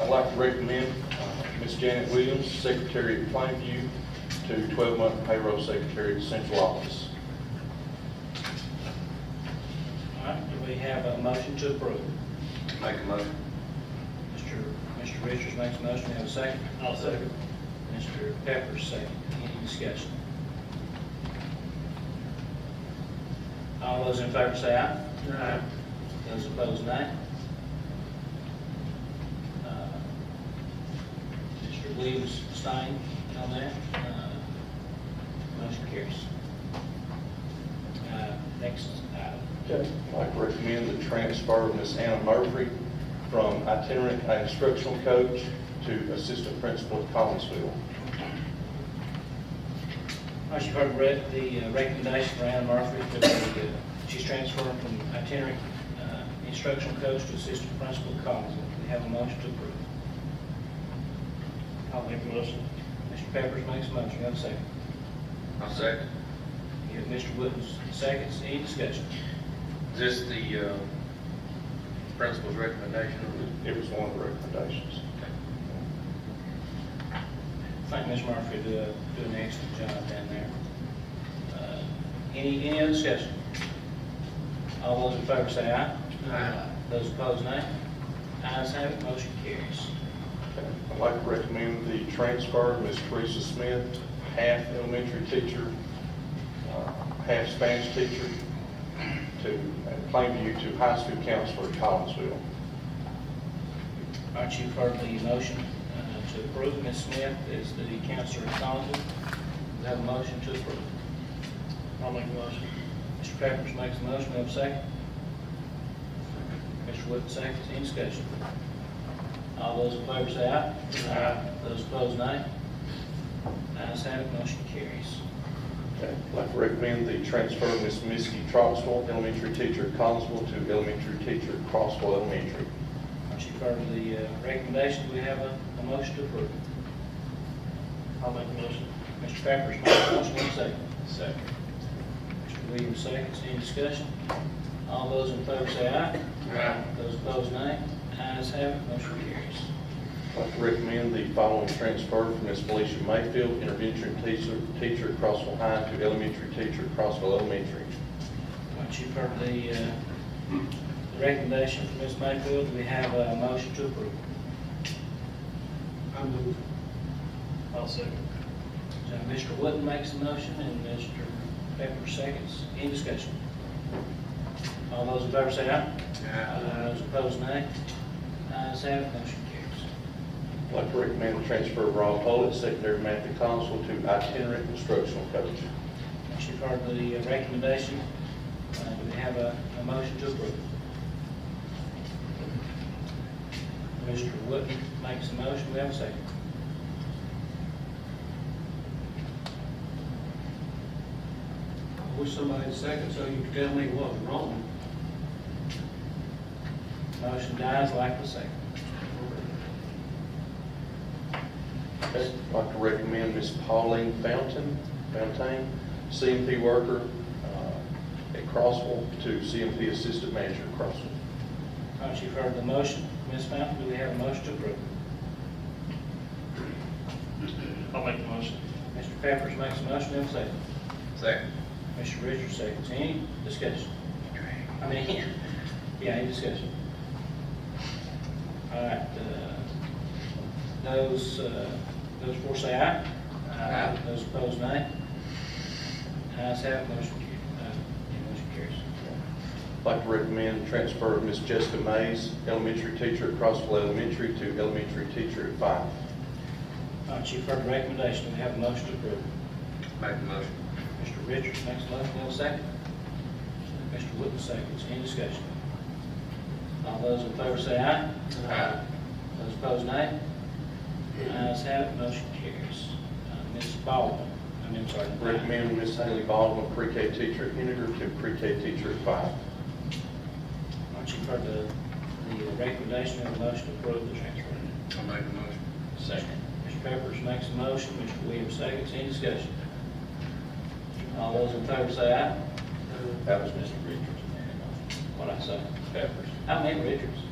I'd like to recommend uh, Ms. Janet Williams, Secretary at Plainview, to 12-month payroll secretary at Central Office. All right, do we have a motion to approve? Make a motion. Mr. Mr. Richards makes a motion, Do we have a second? I'll second. Mr. Pepper, second. Any discussion? All those in favor say aye. Aye. Those opposed, nay. Uh, Mr. Williams, Stein, on that. Uh, Motion carries. Uh, Next item. Okay. I'd like to recommend the transfer of Ms. Anna Murphy from itinerant instructional coach to assistant principal at Collinsville. All right, you've heard Brett, the uh, recommendation for Anna Murphy, for the, uh, she's transferring from itinerant uh, instructional coach to assistant principal at Collinsville. We have a motion to approve. I'll make a motion. Mr. Peppers makes a motion, have a second. I'll second. You have Mr. Williams, seconds, any discussion? Is this the uh, principal's recommendation? It was one of the recommendations. I think Ms. Murphy do, a- do an excellent job down there. Uh, Any, any other discussion? All those in favor say aye. Aye. Those opposed, nay. Ayes have it, motion carries. Okay. I'd like to recommend the transfer of Ms. Teresa Smith, half elementary teacher, uh, half Spanish teacher, to at Plainview to high school counselor at Collinsville. All right, you've heard the motion uh, to approve. Ms. Smith is the counselor at Collinsville. We have a motion to approve. I'll make a motion. Mr. Pepperidge makes a motion, we have a second. Mr. Wood seconds, any discussion? All those in favor say aye. Aye. Those opposed, nay. Ayes have it, motion carries. Okay. I'd like to recommend the transfer of Ms. Misky Troxel, elementary teacher at Collinsville, to elementary teacher at Crossville Elementary. All right, you've heard the uh, recommendation, we have a, a motion to approve. I'll make a motion. Mr. Pepperidge makes a motion, we have a second. Second. Mr. Williams seconds, any discussion? All those in favor say aye. Aye. Those opposed, nay. Ayes have it, motion carries. I'd like to recommend the following transfer from Ms. Felicia Mayfield, intervention teacher, teacher at Crossville High, to elementary teacher at Crossville Elementary. Once you've heard the uh, the recommendation from Ms. Mayfield, do we have a motion to approve. I move. I'll second. So Mr. Wood makes a motion and Mr. Pepper seconds. Any discussion? All those in favor say aye. Uh, Those opposed, nay. Ayes have it, motion carries. I'd like to recommend the transfer of Rob Pollitt, secondary math at Collinsville, to itinerant instructional coach. Once you've heard the uh, recommendation, uh, do we have a, a motion to approve? Mr. Wood makes a motion, we have a second. I wish somebody had second so you could tell me what was wrong. Motion dies like the second. Okay, I'd like to recommend Ms. Pauline Fountain, Fountain, CMP worker uh, at Crossville, to CMP assistant manager at Crossville. Once you've heard the motion, Ms. Fountain, do we have a motion to approve? I'll make the motion. Mr. Peppers makes a motion, we have a second. Second. Mr. Richards seconds. Any discussion? I mean, yeah, any discussion? All right, uh, those, uh, those for say aye. Aye. Those opposed, nay. Ayes have, it, motion carries. Uh, yeah, motion carries. I'd like to recommend transfer of Ms. Jessica Mays, elementary teacher at Crossville Elementary, to elementary teacher at Fife. All right, you've heard the recommendation, we have a motion to approve. Make a motion. Mr. Richards makes a motion, will second. Mr. Wood seconds, any discussion? All those in favor say aye. Aye. Those opposed, nay. Ayes have it, motion carries. Uh, Ms. Baldwin, I mean, I'm sorry. Recommend Ms. Haley Baldwin, pre-K teacher at Henninger, to pre-K teacher at Fife. Once you've heard the, the recommendation, have a motion to approve the transfer. I'll make a motion. Second. Mr. Peppers makes a motion, Mr. Williams seconds, any discussion? All those in favor say aye. That was Mr. Richards. What I say, Peppers. I mean Richards.